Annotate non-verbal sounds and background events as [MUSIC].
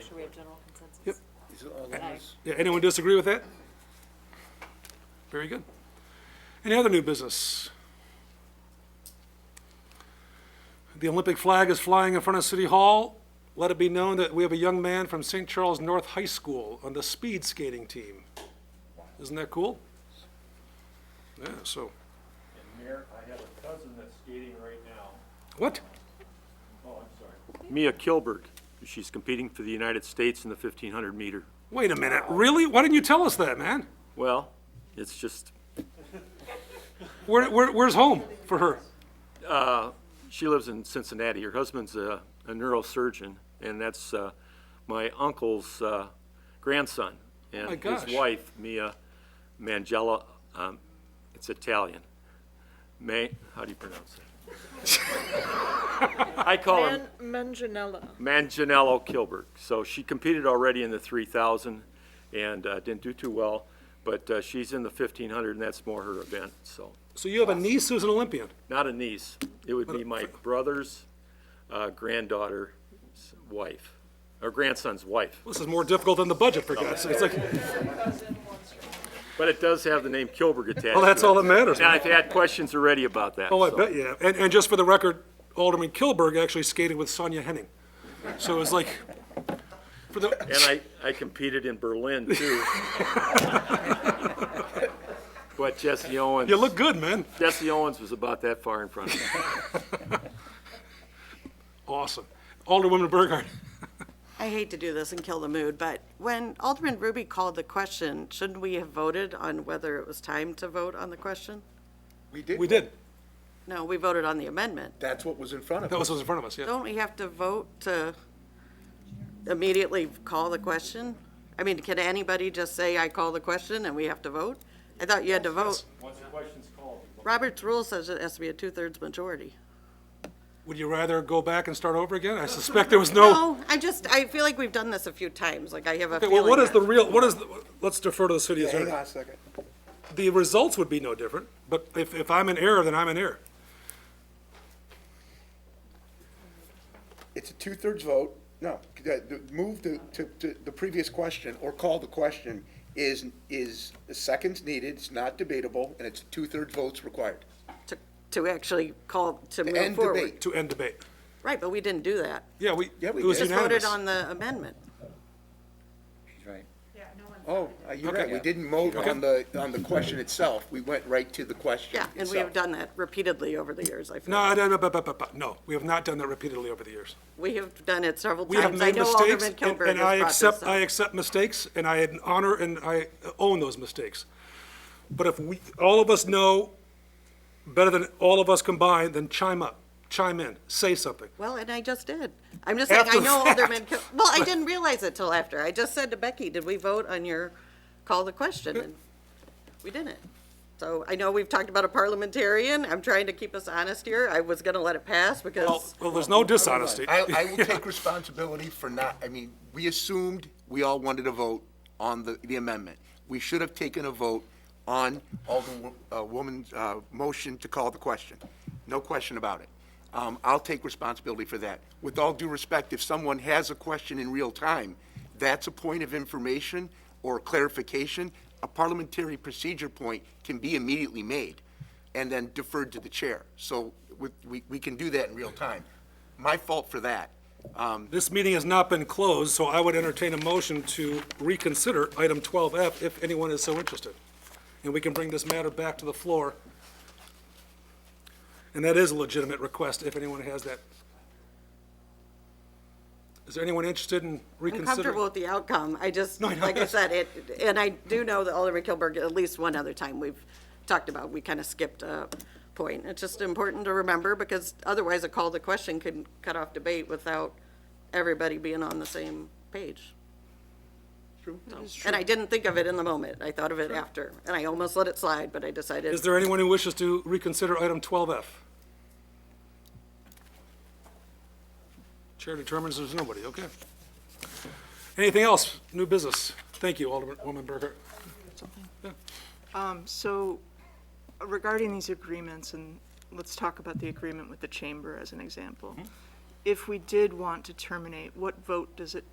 Should we have general consensus? Yep. These are all those. Yeah, anyone disagree with that? Very good. Any other new business? The Olympic flag is flying in front of City Hall. Let it be known that we have a young man from St. Charles North High School on the speed skating team. Isn't that cool? Yeah, so, And Mayor, I have a cousin that's skating right now. what? Oh, I'm sorry. Mia Kilbert. She's competing for the United States in the 1500 meter. Wait a minute, really? Why didn't you tell us that, man? Well, it's just, Where, where, where's home for her? she lives in Cincinnati. Her husband's a, a neurosurgeon, and that's uh, my uncle's uh, grandson. My And gosh. his wife, Mia Mangella, um, it's Italian. May, how do you pronounce it? [LAUGHS] I call him. Manganella. Manganiello Kilburg. So she competed already in the 3,000 and uh, didn't do too well, but uh, she's in the 1,500, and that's more her event, so. So you have a niece who's an Olympian? Not a niece. It would be my brother's uh, granddaughter's wife, or grandson's wife. This is more difficult than the budget, for God's sake. It's like, But it does have the name Kilburg attached to it. well, that's all that matters. And I've had questions already about that. Oh, I so. bet you have. And, and just for the record, Alderman Kilburg actually skated with Sonia Henning. So it was like, for the, And I, I competed in Berlin, [LAUGHS] too. But Jesse Owens. you look good, man. Jesse Owens was about that far in front of me. Awesome. Alderwoman Burghardt. I hate to do this and kill the mood, but when Alderman Ruby called the question, shouldn't we have voted on whether it was time to vote on the question? We did. We did. No, we voted on the amendment. That's what was in front of That us. was what's in front of us, yeah. Don't we have to vote to immediately call the question? I mean, can anybody just say, I call the question and we have to vote? I thought you had to vote. Once the question's called. Robert's rule says it has to be a two-thirds majority. Would you rather go back and start over again? I suspect there was no. No, I just, I feel like we've done this a few times, like I have a Okay, feeling. well, what is that- the real, what is, the- let's defer to the city Hang attorney. on a second. The results would be no different, but if, if I'm in error, then I'm in error. It's a two-thirds vote. No, the- the- move the, to, to the previous question or call the question is, is the seconds needed, it's not debatable, and it's two-thirds votes required. To to actually call, to move End forward. debate. To end debate. Right, but we didn't do that. Yeah, we, Yeah, it we was did. Just voted unanimous. on the amendment. Right. Oh, uh, you're right. Okay. We didn't vote on the, on the question itself. We went right to the question Yeah, itself. and we have done that repeatedly over the years, I feel. No, no, no, but, but, but, but, no, we have not done that repeatedly over the years. We have done it several We have times. I made know mistakes, Alderman and- Kilburg has and I brought this up. accept, I accept mistakes, and I honor and I own those mistakes. But if we, all of us know better than all of us combined, then chime up, chime in, say something. Well, and I just did. I'm just saying, I After know the fact. Alderman, Kil- well, I didn't realize it till after. I just said to Becky, did we vote on your, call the question? And We didn't. So I know we've talked about a parliamentarian. I'm trying to keep us honest here. I was going to let it pass Well, because, well, there's no dishonesty. I, I will take responsibility for not, I mean, we assumed we all wanted a vote on the, the amendment. We should have taken a vote on Alderwoman's, uh, motion to call the question. No question about it. Um, I'll take responsibility for that. With all due respect, if someone has a question in real time, that's a point of information or clarification. A parliamentary procedure point can be immediately made and then deferred to the chair. So with, we, we can do that in real time. My fault for that. Um, This meeting has not been closed, so I would entertain a motion to reconsider item 12F if anyone is so interested. And we can bring this matter back to the floor. And that is a legitimate request if anyone has that. Is there anyone interested in I'm comfortable reconsidering? with the outcome. I just, No, I know. like I said, it, and I do know that Alderman Kilburg, at least one other time, we've talked about, we kind of skipped a point. It's just important to remember because otherwise a call to question can cut off debate without everybody being on the same page. True. And I didn't think of it in the moment. I thought of it after, and I almost let it slide, but I decided. Is there anyone who wishes to reconsider item 12F? Chair determines there's nobody, okay. Anything else? New business? Thank you, Alderman Burger. Um, So regarding these agreements, and let's talk about the agreement with the chamber as an example. If we did want to terminate, what vote does it